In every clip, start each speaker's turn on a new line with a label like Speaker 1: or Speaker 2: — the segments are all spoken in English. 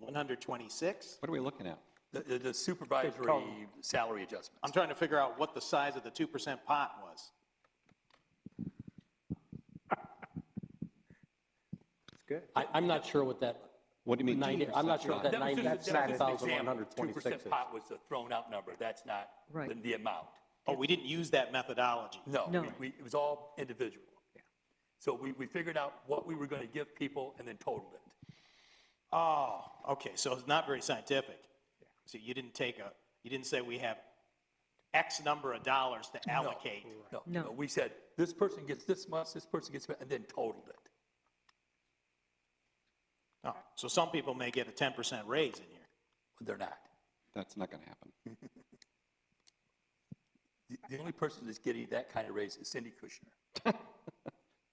Speaker 1: 726.
Speaker 2: What are we looking at?
Speaker 3: The- The the supervisory salary adjustment.
Speaker 1: I'm trying to figure out what the size of the 2% pot was.
Speaker 4: I, I'm not sure what that,
Speaker 2: What do you mean?
Speaker 4: ninety, I'm not sure what that
Speaker 3: That was
Speaker 4: ninety,
Speaker 3: just-
Speaker 4: that's
Speaker 3: that was just an
Speaker 4: thousand one
Speaker 3: example.
Speaker 4: hundred twenty-six
Speaker 3: 2% pot was the thrown-out number, that's not
Speaker 5: Right.
Speaker 3: the- the amount.
Speaker 1: Oh, we didn't use that methodology.
Speaker 3: No,
Speaker 5: No.
Speaker 3: we- we- it was all individual. So we we figured out what we were going to give people and then totaled it.
Speaker 1: Oh, okay, so it's not very scientific. So you didn't take a, you didn't say we have X number of dollars to allocate.
Speaker 3: No,
Speaker 5: No.
Speaker 3: no, we said, this person gets this much, this person gets, that," and then totaled it.
Speaker 1: Oh, So some people may get a 10% raise in here.
Speaker 3: They're not.
Speaker 2: That's not going to happen.
Speaker 3: The- The only person that's getting that kind of raise is Cindy Kushner.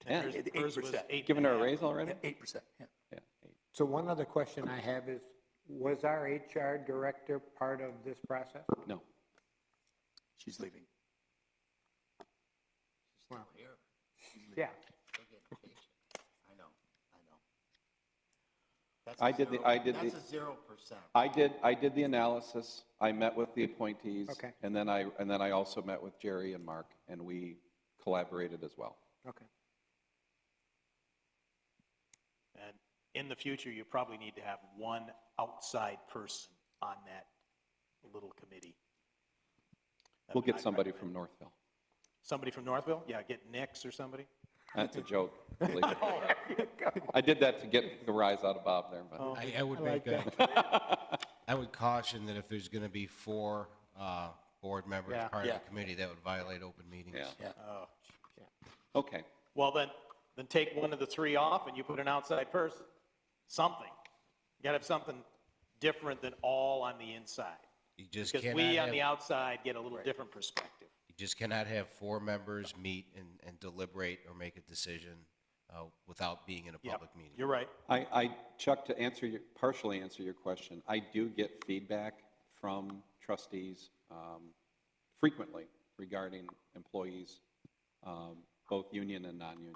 Speaker 2: Yeah.
Speaker 1: Hers-
Speaker 3: the
Speaker 1: hers was
Speaker 3: 8%.
Speaker 1: eight
Speaker 2: Giving
Speaker 1: and a
Speaker 2: her a
Speaker 1: half.
Speaker 2: raise already?
Speaker 3: Yeah, 8%, yeah.
Speaker 2: Yeah.
Speaker 6: So one other question I have is, was our HR director part of this process?
Speaker 2: No.
Speaker 3: She's leaving.
Speaker 6: Yeah.
Speaker 7: That's
Speaker 2: I
Speaker 7: a
Speaker 2: did the-
Speaker 7: zero-
Speaker 2: I did the-
Speaker 7: That's a zero percent.
Speaker 2: I did, I did the analysis. I met with the appointees.
Speaker 6: Okay.
Speaker 2: And then I, and then I also met with Jerry and Mark, and we collaborated as well.
Speaker 6: Okay.
Speaker 1: And in the future, you probably need to have one outside person on that little committee. That
Speaker 2: We'll
Speaker 1: would
Speaker 2: get
Speaker 1: I
Speaker 2: somebody
Speaker 1: recommend.
Speaker 2: from Northville.
Speaker 1: Somebody from Northville? Yeah, get Nix or somebody?
Speaker 2: That's a joke. believe it.
Speaker 7: Oh,
Speaker 2: I did that to get the rise out of Bob there,
Speaker 7: Oh.
Speaker 2: but
Speaker 8: I, I would make a, I would caution that if there's going to be four uh, board members
Speaker 6: Yeah.
Speaker 8: part of
Speaker 3: Yeah.
Speaker 8: the committee, that would violate open meetings.
Speaker 2: Yeah.
Speaker 3: Yeah.
Speaker 2: okay.
Speaker 1: Well, then, then take one of the three off and you put an outside person, something. You gotta have something different than all on the inside.
Speaker 8: You just
Speaker 1: Because
Speaker 8: cannot
Speaker 1: we on
Speaker 8: have-
Speaker 1: the outside get a little different perspective.
Speaker 8: You just cannot have four members meet and, and deliberate or make a decision uh, without being in a
Speaker 1: Yeah,
Speaker 8: public meeting.
Speaker 1: You're right.
Speaker 2: I, I, Chuck, to answer your, partially answer your question, I do get feedback from trustees um, frequently regarding employees, um, both union and non-union.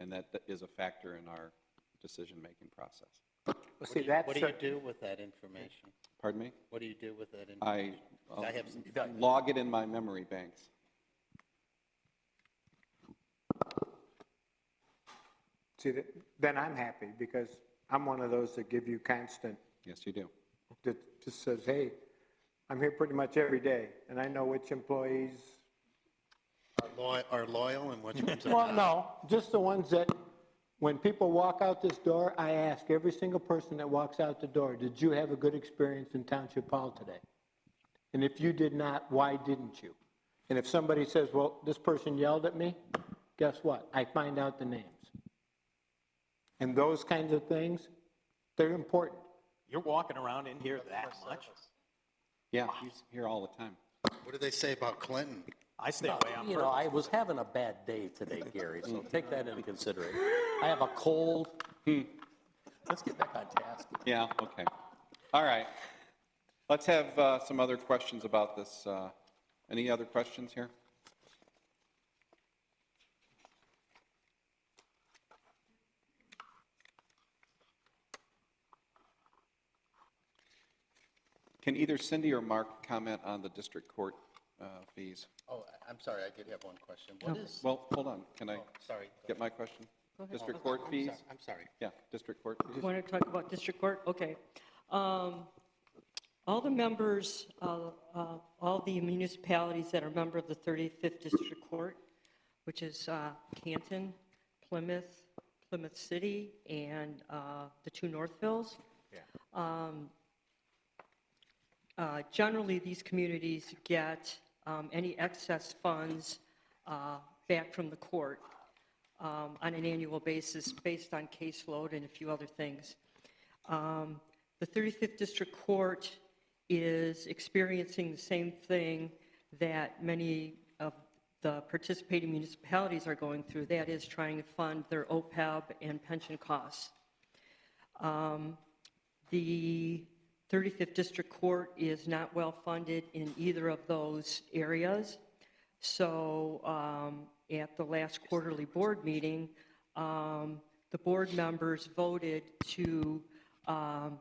Speaker 2: And that is a factor in our decision-making process.
Speaker 6: Well, See, that's.
Speaker 7: What do you
Speaker 6: cer-
Speaker 7: do with that information?
Speaker 2: Pardon me?
Speaker 7: What do you do with that information?
Speaker 2: I uh,
Speaker 7: I have some-
Speaker 2: log it in my memory banks.
Speaker 6: See, th- then I'm happy because I'm one of those that give you constant,
Speaker 2: Yes, you do.
Speaker 6: that just says, hey, I'm here pretty much every day and I know which employees.
Speaker 7: Are loyal, are loyal and which ones are
Speaker 6: Well,
Speaker 7: not?
Speaker 6: no, just the ones that, when people walk out this door, I ask every single person that walks out the door, did you have a good experience in Township Hall today? And if you did not, why didn't you? And if somebody says, well, this person yelled at me, guess what? I find out the names. And those kinds of things, they're important.
Speaker 1: You're walking around in here that much.
Speaker 2: Yeah, he's here all the time.
Speaker 7: What do they say about Clinton?
Speaker 1: I stay away on
Speaker 4: You know,
Speaker 1: purpose.
Speaker 4: I was having a bad day today, Gary, so take that into consideration. I have a cold,
Speaker 3: Let's get back on task.
Speaker 2: Yeah, okay. All right. Let's have uh, some other questions about this. uh, Any other questions here? Can either Cindy or Mark comment on the district court uh, fees?
Speaker 7: Oh, I- I'm sorry, I did have one question. What is,
Speaker 2: Well, hold on, can I
Speaker 7: Oh, sorry.
Speaker 2: get my question? District court fees?
Speaker 7: I'm sorry.
Speaker 2: Yeah, district court fees.
Speaker 9: Want to talk about district court? Okay. Um, All the members, uh, uh, all the municipalities that are a member of the 35th District Court, which is uh, Canton, Plymouth, Plymouth City, and uh, the two Northvilles. Um, uh, Generally, these communities get um, any excess funds uh, back from the court um, on an annual basis based on caseload and a few other things. Um, The 35th District Court is experiencing the same thing that many of the participating municipalities are going through, that is trying to fund their OPEB and pension costs. The 35th District Court is not well-funded in either of those areas. So um, at the last quarterly board meeting, um, the board members voted to um,